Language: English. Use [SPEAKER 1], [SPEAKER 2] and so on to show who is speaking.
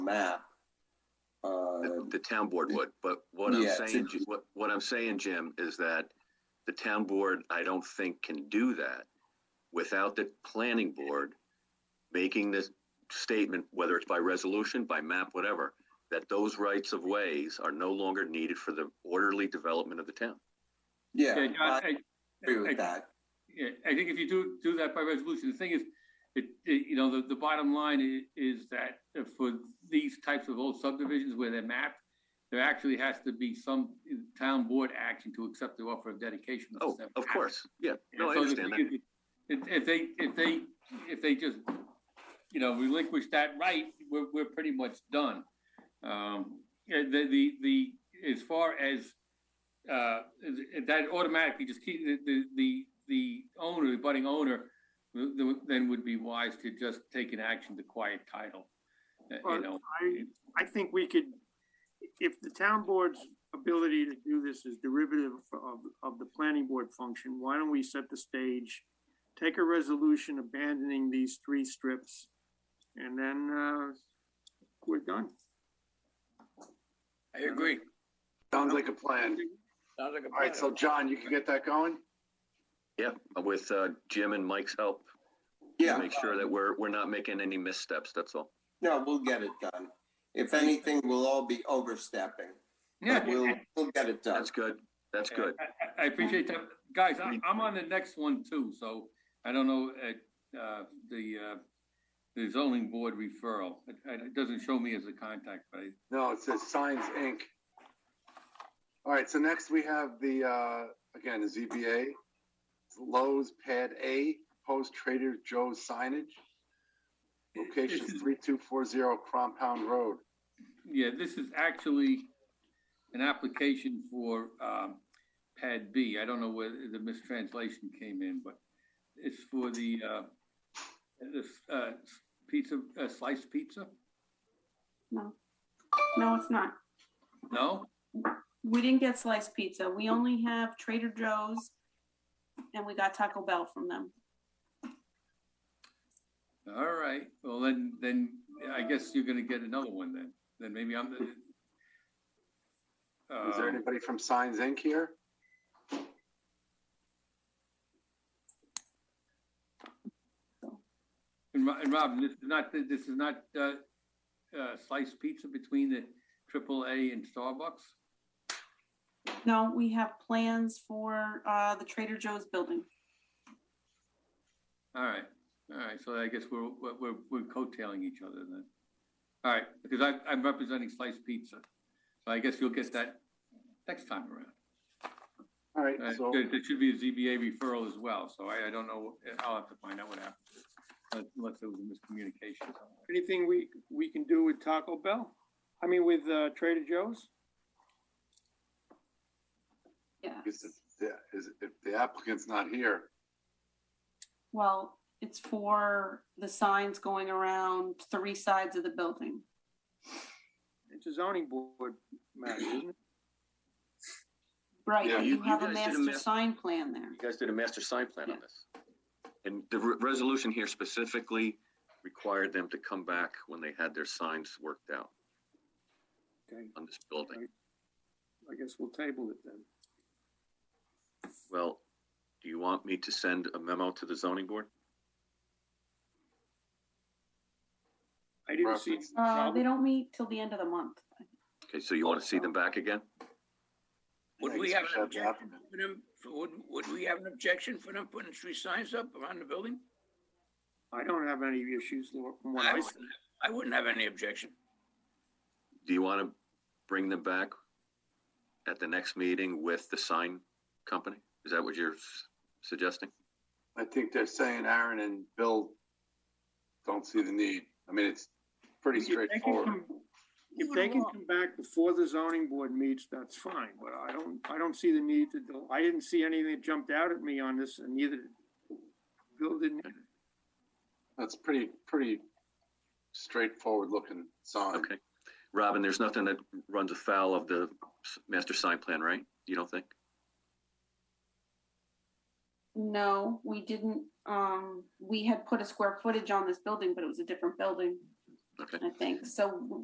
[SPEAKER 1] map. Uh,
[SPEAKER 2] The the town board would, but what I'm
[SPEAKER 1] Yeah, it's
[SPEAKER 2] saying,
[SPEAKER 1] inter-
[SPEAKER 2] what, what I'm saying, Jim, is that the town board, I don't think can do that without the planning board making this statement, whether it's by resolution, by map, whatever, that those rights of ways are no longer needed for the orderly development of the town.
[SPEAKER 1] yeah,
[SPEAKER 3] Yeah, John,
[SPEAKER 1] I
[SPEAKER 3] I,
[SPEAKER 1] agree
[SPEAKER 3] I-
[SPEAKER 1] with that.
[SPEAKER 3] yeah, I think if you do, do that by resolution, the thing is, it, it, you know, the, the bottom line is, is that for these types of old subdivisions where they're mapped, there actually has to be some town board action to accept the offer of dedication.
[SPEAKER 2] Oh,
[SPEAKER 3] That's
[SPEAKER 2] of
[SPEAKER 3] happened.
[SPEAKER 2] course, yeah, no, I
[SPEAKER 3] So the
[SPEAKER 2] understand that.
[SPEAKER 3] thing is, If, if they, if they, if they just, you know, relinquish that right, we're, we're pretty much done. Um, yeah, the, the, the, as far as, uh, that automatically just keep, the- the, the, the owner, the budding owner, th- th- then would be wise to just take an action to quiet title, uh, you
[SPEAKER 4] Well,
[SPEAKER 3] know.
[SPEAKER 4] I, I think we could, if the town board's ability to do this is derivative of, of the planning board function, why don't we set the stage? Take a resolution abandoning these three strips and then, uh, we're done.
[SPEAKER 3] I agree.
[SPEAKER 5] Sounds like a plan.
[SPEAKER 6] Sounds like a
[SPEAKER 5] All right, so
[SPEAKER 6] plan.
[SPEAKER 5] John, you can get that going?
[SPEAKER 2] Yeah, with, uh, Jim and Mike's help, to
[SPEAKER 1] Yeah,
[SPEAKER 2] make sure that we're, we're not making any missteps, that's all.
[SPEAKER 1] no, we'll get it done. If anything, we'll all be overstepping, but we'll,
[SPEAKER 3] Yeah.
[SPEAKER 1] we'll get it done.
[SPEAKER 2] That's good, that's good.
[SPEAKER 3] I- I, I appreciate that. Guys, I, I'm on the next one too, so I don't know, uh, uh, the, uh, the zoning board referral. It, it doesn't show me as a contact, but I,
[SPEAKER 5] No, it says Signs Inc. All right, so next we have the, uh, again, the ZBA, Lowe's Pad A, Post Trader Joe's signage, location
[SPEAKER 3] This is-
[SPEAKER 5] three two four zero Crompound Road.
[SPEAKER 3] yeah, this is actually an application for, um, pad B. I don't know where the mistranslation came in, but it's for the, uh, this, uh, pizza, uh, sliced pizza?
[SPEAKER 7] No. No, it's not.
[SPEAKER 3] No?
[SPEAKER 7] We didn't get sliced pizza. We only have Trader Joe's and we got Taco Bell from them.
[SPEAKER 3] All right, well, then, then I guess you're gonna get another one then, then maybe I'm the.
[SPEAKER 5] Is there
[SPEAKER 3] Um,
[SPEAKER 5] anybody from Signs Inc. here?
[SPEAKER 3] And Ro- and Robin, this is not, this is not, uh, uh, sliced pizza between the triple A and Starbucks?
[SPEAKER 7] No, we have plans for uh, the Trader Joe's building.
[SPEAKER 3] All right, all right, so I guess we're, we're- we're, we're coattailing each other then. All right, because I, I'm representing sliced pizza, so I guess you'll get that next time around.
[SPEAKER 5] All right,
[SPEAKER 3] Uh,
[SPEAKER 5] so,
[SPEAKER 3] There, there should be a ZBA referral as well, so I, I don't know, I'll have to find out what happened. Unless- Unless there was a miscommunication somewhere.
[SPEAKER 4] Anything we, we can do with Taco Bell? I mean, with, uh, Trader Joe's?
[SPEAKER 7] Yeah.
[SPEAKER 5] is it- yeah, is, if the applicant's not here,
[SPEAKER 7] Well, it's for the signs going around three sides of the building.
[SPEAKER 4] It's a zoning board matter, isn't it?
[SPEAKER 7] Right,
[SPEAKER 5] Yeah,
[SPEAKER 7] but
[SPEAKER 2] you-
[SPEAKER 7] you have
[SPEAKER 2] you
[SPEAKER 7] a
[SPEAKER 2] guys did a
[SPEAKER 7] master
[SPEAKER 2] mas-
[SPEAKER 7] sign plan there.
[SPEAKER 2] You guys did a master sign plan on this. And the re- resolution here specifically required them to come back when they had their signs worked out
[SPEAKER 4] Okay,
[SPEAKER 2] on this building.
[SPEAKER 4] I guess we'll table it then.
[SPEAKER 2] Well, do you want me to send a memo to the zoning board?
[SPEAKER 4] I didn't see. any
[SPEAKER 5] Reference.
[SPEAKER 7] Uh,
[SPEAKER 4] problem.
[SPEAKER 7] They don't meet till the end of the month.
[SPEAKER 2] Okay, so you want to see them back again?
[SPEAKER 5] I
[SPEAKER 6] Would we
[SPEAKER 5] guess
[SPEAKER 6] have
[SPEAKER 5] we
[SPEAKER 6] an
[SPEAKER 5] should have the
[SPEAKER 6] objection
[SPEAKER 5] applicant.
[SPEAKER 6] for them, for- would, would we have an objection for them putting three signs up around the building?
[SPEAKER 4] I don't have any issues, Laura, from what
[SPEAKER 6] I
[SPEAKER 4] I
[SPEAKER 6] wouldn't,
[SPEAKER 4] see.
[SPEAKER 6] I wouldn't have any objection.
[SPEAKER 2] Do you want to bring them back at the next meeting with the sign company? Is that what you're s- suggesting?
[SPEAKER 5] I think they're saying Aaron and Bill don't see the need. I mean, it's pretty
[SPEAKER 4] If they can
[SPEAKER 5] straightforward.
[SPEAKER 4] come- If they can come back before the zoning board meets, that's fine, but I don't, I don't see the need to, do- I didn't see anything that jumped out at me on this and neither Bill didn't.
[SPEAKER 5] That's pretty, pretty straightforward looking sign.
[SPEAKER 2] Okay. Robin, there's nothing that runs afoul of the s- master sign plan, right? You don't think?
[SPEAKER 7] No, we didn't, um, we had put a square footage on this building, but it was a different building,
[SPEAKER 2] Okay.
[SPEAKER 7] I think. So